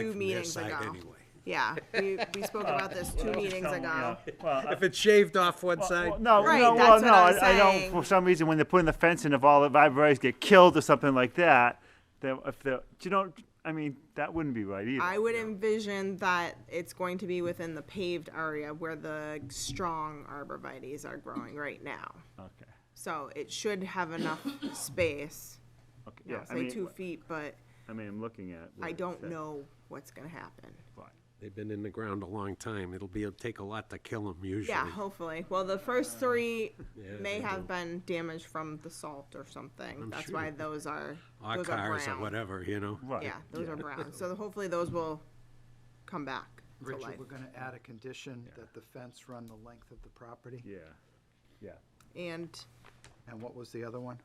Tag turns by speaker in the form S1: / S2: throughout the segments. S1: two
S2: from their
S1: meetings
S2: side
S1: ago.
S2: anyway.
S1: Yeah, we, we spoke about this two meetings
S3: Oh, So,
S1: ago.
S3: yeah, Well, I-
S2: If it's shaved off one
S3: well,
S2: side,
S3: no,
S1: Right,
S3: no,
S1: that's what
S3: well, no,
S1: I'm
S3: I, I
S1: saying.
S3: don't, for some reason, when they're putting the fence in, if all the vibrators get killed or something like that, then if the, do you know, I mean, that wouldn't be right either.
S1: I would envision that it's going to be within the paved area where the strong arborvitae's are growing right now.
S3: Okay,
S1: So it should have enough space,
S3: okay,
S1: you
S3: yeah,
S1: know,
S3: I
S1: say
S3: mean,
S1: two feet, but
S3: I mean, I'm looking at. what
S1: I
S3: it
S1: don't
S3: said,
S1: know what's gonna happen.
S3: but-
S2: they've been in the ground a long time. It'll be, it'll take a lot to kill them usually.
S1: Yeah, hopefully. Well, the
S3: Uh,
S1: first three
S2: Yeah,
S1: may
S2: they
S1: have
S2: do.
S1: been damaged from the salt or something. That's
S2: sure.
S1: why those are
S2: Our
S1: those are
S2: cars or
S1: brown.
S2: whatever, you know?
S3: Right.
S1: Yeah, those are brown. So hopefully those will come back to life.
S4: Richard, we're gonna add a condition that the fence run the length of the property.
S3: Yeah, yeah.
S1: And
S4: And what was the other one?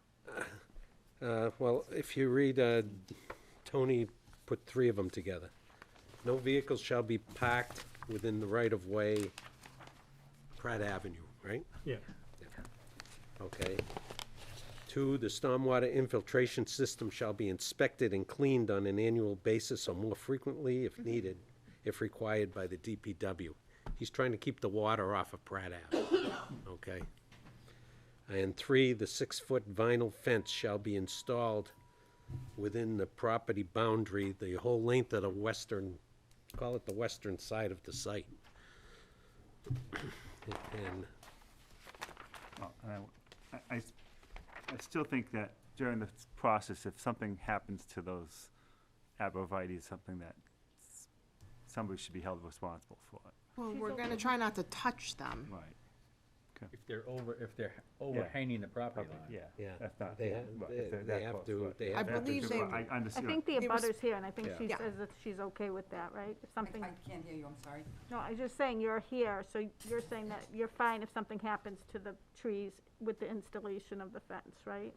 S2: Uh, well, if you read, uh, Tony put three of them together. No vehicles shall be parked within the right of way, Pratt Avenue, right?
S5: Yeah.
S2: Okay. Two, the stormwater infiltration system shall be inspected and cleaned on an annual basis or more frequently if needed, if required by the DPW. He's trying to keep the water off of Pratt Ave, okay? And three, the six-foot vinyl fence shall be installed within the property boundary, the whole length of the western, call it the western side of the site. And
S3: Well, and I, I- I s- I still think that during this process, if something happens to those abovites, something that s- somebody should be held responsible for it.
S1: well, we're gonna try not to touch them.
S3: Right.
S5: If they're over, if they're overhanging the property line.
S3: Yeah,
S2: Yeah,
S3: that's not.
S2: they
S3: yeah,
S2: have-
S3: right,
S2: they-
S3: if they're
S2: they
S3: that
S2: have
S3: close,
S2: to-
S3: right.
S2: they
S3: If
S2: have
S1: I
S3: they're
S1: believe
S3: too
S1: they-
S3: close, I I
S6: I
S3: understand.
S6: think the
S1: They res-
S6: abutter's here, and I think she
S1: Yeah.
S6: says that she's okay with that, right? If
S7: I-
S6: something,
S7: I can't hear you, I'm sorry.
S6: no, I'm just saying, you're here, so you're saying that you're fine if something happens to the trees with the installation of the fence, right?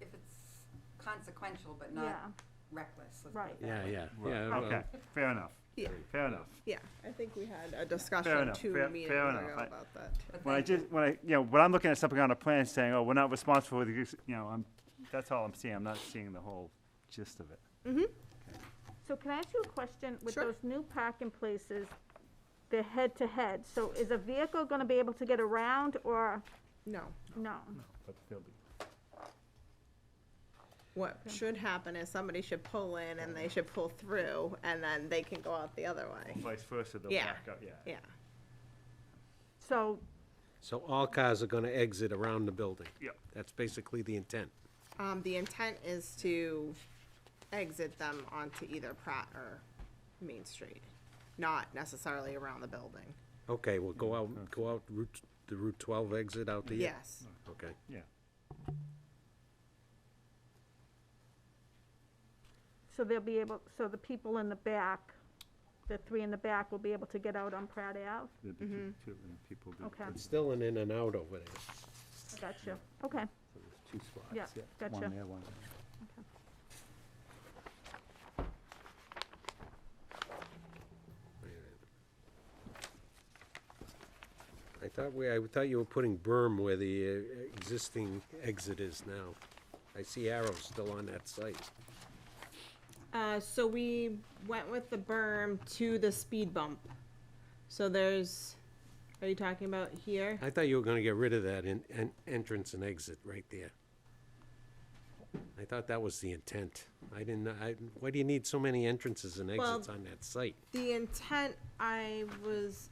S7: If it's consequential but
S6: Yeah.
S7: not reckless, let's put
S6: Right.
S7: it that
S2: Yeah,
S7: way.
S2: yeah,
S3: Right,
S2: yeah. well,
S3: Okay, fair enough,
S1: Yeah.
S3: fair enough.
S1: Yeah, I think we had a discussion
S3: enough,
S1: two
S3: fair-
S1: meetings
S3: fair
S1: ago
S3: enough. I-
S1: about that. too.
S7: But
S3: When I
S7: thank you.
S3: just, when I, you know, when I'm looking at something on a plan saying, oh, we're not responsible for the, use," you know, I'm, that's all I'm seeing, I'm not seeing the whole gist of it.
S6: So can I ask you a question? With
S1: Sure.
S6: those new parking places, they're head-to-head, so is a vehicle gonna be able to get around, or
S1: No,
S6: no?
S3: But they'll be,
S1: what should happen is somebody should pull in and they should pull through and then they can go out the other way.
S3: vice versa, they'll
S1: Yeah.
S3: back up, yeah.
S1: Yeah,
S6: So,
S2: So all cars are gonna exit around the building?
S3: Yeah.
S2: That's basically the intent.
S1: um, the intent is to exit them onto either Pratt or Main Street, not necessarily around the building.
S2: Okay, well, go out, go out Route, the Route twelve exit out the.
S1: Yes,
S2: Okay.
S3: Yeah,
S6: so they'll be able, so the people in the back, the three in the back will be able to get out on Pratt Ave?
S3: there'll be two, two, and people do.
S6: Okay,
S2: It's still an in and out over there.
S6: gotcha, okay.
S3: So there's two spots.
S6: Yeah, gotcha.
S3: One there, one there.
S2: I thought we, I thought you were putting berm where the uh, existing exit is now. I see arrows still on that site.
S1: Uh, so we went with the berm to the speed bump. So there's, are you talking about here?
S2: I thought you were gonna get rid of that in, en entrance and exit right there. I thought that was the intent. I didn't, I, why do you need so many entrances and
S1: Well-
S2: exits on that site?
S1: The intent, I was,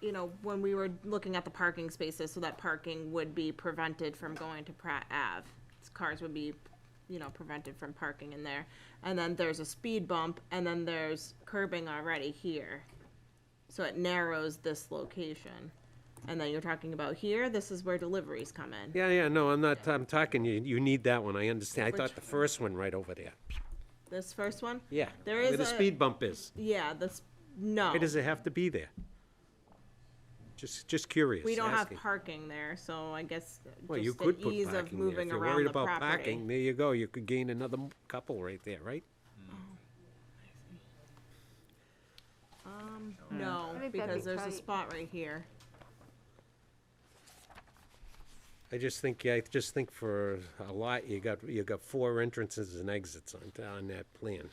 S1: you know, when we were looking at the parking spaces, so that parking would be prevented from going to Pratt Ave. Cars would be, you know, prevented from parking in there. And then there's a speed bump, and then there's curbing already here. So it narrows this location. And then you're talking about here, this is where deliveries come in.
S2: Yeah, yeah, no, I'm not, I'm talking, you, you need that one, I understand. I thought the first one right over there.
S1: This first one?
S2: Yeah.
S1: There
S2: Where
S1: is
S2: the
S1: a-
S2: speed bump is.
S1: Yeah, this, no.
S2: Why does it have to be there? Just, just curious,
S1: We don't have
S2: asking.
S1: parking there, so I guess
S2: Well, you
S1: just
S2: could
S1: the
S2: put
S1: ease of
S2: parking there. If
S1: moving
S2: you're
S1: around
S2: worried
S1: the
S2: about
S1: property.
S2: parking, there you go, you could gain another m- couple right there, right?
S1: No,
S6: Mm. I think that'd
S1: because
S6: be
S1: there's a
S6: tight.
S1: spot right here.
S2: I just think, yeah, I just think for a lot, you got, you got four entrances and exits on, on that plan.